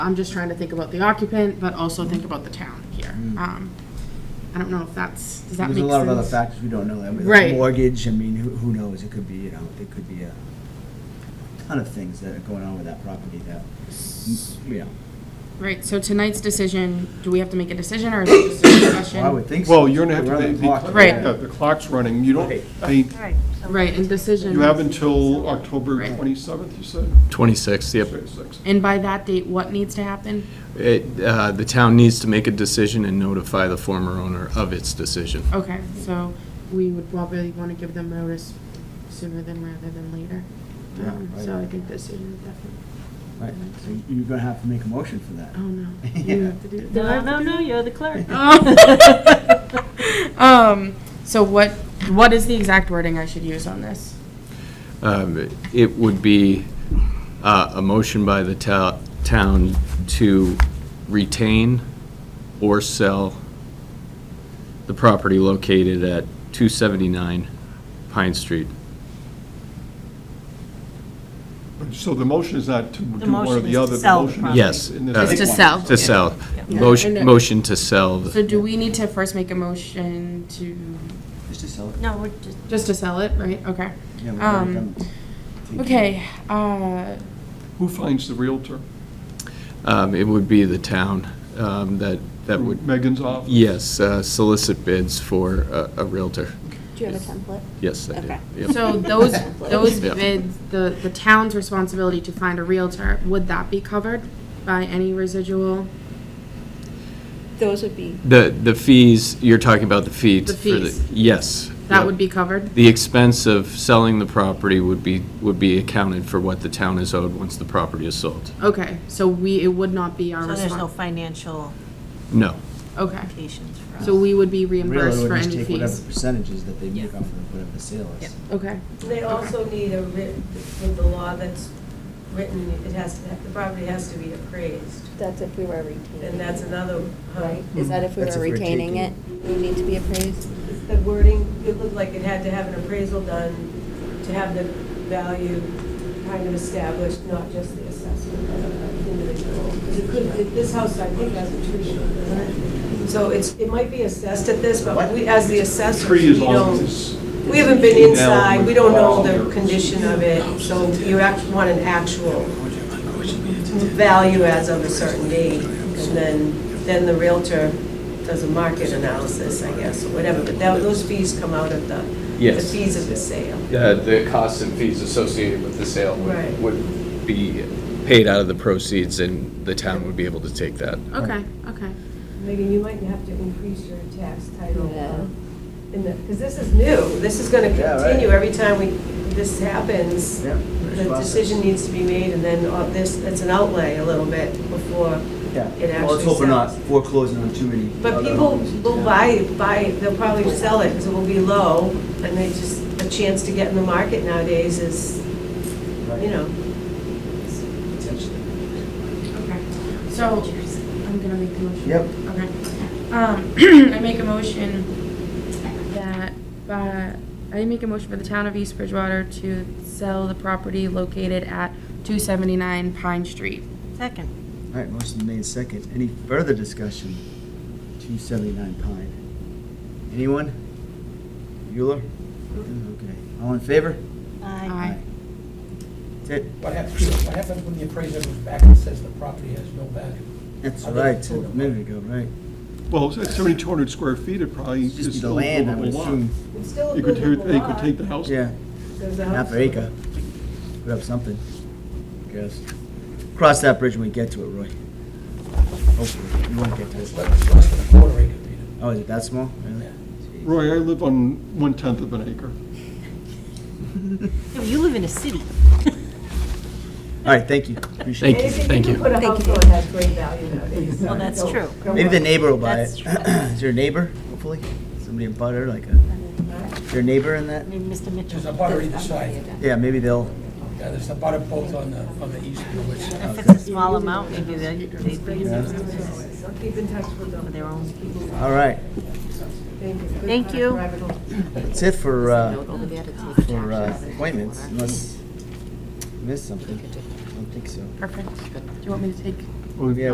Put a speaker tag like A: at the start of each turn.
A: I'm just trying to think about the occupant, but also think about the town here. Um, I don't know if that's, does that make
B: Mm. There's a
A: sense?
B: lot of other factors we don't know. I mean,
A: Right.
B: Mortgage, I mean, who, who knows? It could be, you know, it could be a ton of things that are going on with that property that, you know,
A: Right, so tonight's decision, do we have to make a decision or is it just a discussion?
B: well, I would think so.
C: Well, you're gonna have
B: We're on
C: to,
B: the clock.
C: the-
A: Right.
C: the, the clock's running, you don't,
B: Right.
C: I mean,
D: Right. so-
A: Right, and decision.
C: you have until October
A: Right.
C: twenty-seventh, you said?
E: 26, yep.
C: Twenty-sixth.
A: And by that date, what needs to happen?
E: It, uh, The town needs to make a decision and notify the former owner of its decision.
A: Okay, so we would probably want to give them notice sooner than rather than later.
B: Yeah,
A: Um,
B: right.
A: So I think decision is definitely,
B: Right, so you're gonna have to make a motion for that.
A: oh no.
B: Yeah.
A: You have to do. do I have
D: No,
A: to
D: no,
A: do-
D: no, you're the clerk.
A: Um, so what, what is the exact wording I should use on this?
E: Um, It would be uh, a motion by the to- town to retain or sell the property located at 279 Pine Street.
C: So the motion is not to do one or
D: motion is
C: the
D: to
C: other. the
D: sell the
C: motion is
D: property.
E: Yes.
C: in this
E: uh,
A: It's to
C: one.
A: sell.
E: To sell.
A: Yeah.
E: Motion motion to sell. the-
A: So do we need to first make a motion to,
B: Just to sell it.
D: No, we're just,
A: just to sell it, right? Okay.
B: Yeah, we've already
A: Um,
B: done- taken-
A: okay, uh,
C: Who finds the realtor?
E: um, It would be the town um, that that would,
C: Megan's office?
E: yes, uh, solicit bids for a a Realtor.
F: Do you have a template?
E: Yes, I do.
F: Okay.
E: Yep.
A: so those, those
E: Yeah.
A: bids, the, the town's responsibility to find a realtor, would that be covered by any residual?
F: Those would be,
E: The, the fees, you're talking about the fees.
A: The
E: for the-
A: fees.
E: Yes.
A: That would be covered?
E: The expense of selling the property would be, would be accounted for what the town is owed once the property is sold.
A: Okay, so we, it would not be our
D: so there's no
A: response?
D: financial
E: No.
A: Okay,
D: implications for us.
A: so we would be
B: Really,
A: reimbursed
B: we
A: for
B: just
A: any
B: take Whatever
A: fees?
B: percentages that they make off of whatever the sale
D: Yeah.
B: is.
A: Okay,
G: They also need a writ, with the law that's written, it has, to the property has to be appraised,
F: that's if we were retaining.
G: and that's another,
F: Right,
G: right?
F: is that if we
B: That's
F: were
B: if we're
F: retaining it, we need to be appraised?
G: The wording, it looked like it had to have an appraisal done to have the value kind of established, not just the assessment of an individual. 'Cause it could, it- this house, I think, has a tree short, doesn't it? So it's, it might be assessed at this, but we, as the assessors,
C: Tree
G: we
C: is on
G: don't.
C: this.
G: We haven't been
C: Now
G: inside, we
C: with
G: don't know
C: all
G: the
C: your-
G: condition of it, so you actually want an actual value as of a certain date, and then, then the Realtor does a market analysis, I guess, or whatever, but that- those fees come out of the, the
E: Yes.
G: fees of the sale.
E: The, the costs and fees associated with the sale
G: would- Right.
E: would be paid out of the proceeds and the town would be able to take that.
A: okay, okay.
G: Megan, you might have to increase your tax title,
F: Yeah.
G: uh, in the, because this is new, this is gonna
B: Yeah, right.
G: continue every time we, this happens.
B: Yeah.
G: The decision needs to be made, and then all this, it's an outlay a little bit before
B: Yeah,
G: it
B: well, let's
G: actually
B: hope we're not
G: sells.
B: foreclosing on too many.
G: But
B: other
G: people
B: homes in
G: will
B: town.
G: buy, buy, they'll probably sell it, because it will be low, and they just, a chance to get in the market nowadays is,
B: Right.
G: you know.
B: Potentially.
A: Okay, so, I'm gonna make the motion.
B: Yep.
A: Okay. Um, I make a motion that, uh, I make a motion for the town of East Bridgewater to sell the property located at two seventy-nine Pine Street.
D: Second.
B: All right, motion made second. Any further discussion? 279 Pine. Anyone? Bueller? Okay. All in favor?
A: Aye.
B: That's it.
H: What happens, what happens when the appraiser goes back and says the property has no value?
B: That's
H: I'll
B: right,
H: just
B: a
H: vote on
B: minute ago, right.
C: Well, it's seventy-two hundred square feet, it probably
B: It's
C: is
B: just the
C: still
B: land, I
C: livable
B: would
C: lot.
B: assume.
G: It's still a
C: You could, hear-
G: good
C: they could take the house.
B: Yeah, half acre. Put up something. Guess. Cross that bridge when we get to it, Roy. Hopefully, we won't get to
H: It's
B: it.
H: less less than a quarter acre, Peter.
B: Oh, is it that small? Really?
H: Yeah.
B: Jeez.
C: Roy, I live on one-tenth of an acre.
D: No, You live in a city.
B: All right, thank you. Appreciate it.
E: Thank you, thank
G: Anything you
E: you.
G: can put a
F: Thank
G: house
F: you.
G: on has great value nowadays.
D: Well, that's
G: Don't-
D: true.
G: don't
B: Maybe the
G: worry.
B: neighbor will buy
D: That's
B: it.
D: true.
B: Is there a neighbor, hopefully? Somebody in butter, like a, is there a neighbor in that?
D: I mean, Mr. Mitchell.
H: There's a butter either side.
B: Yeah, maybe they'll,
H: Yeah, there's a butter both on the, on the east and west. side.
D: If it's a small amount, maybe they- they'd be
G: So Keep in touch with
D: for
G: them.
D: their own.
B: all right.
G: Thank you. Good
D: Thank you.
G: private home.
B: That's it for, uh,
F: Over there to take
B: for uh, appointments, unless I missed something. I don't think so.
A: Perfect. Do you want me to take
C: Well,
B: Yeah,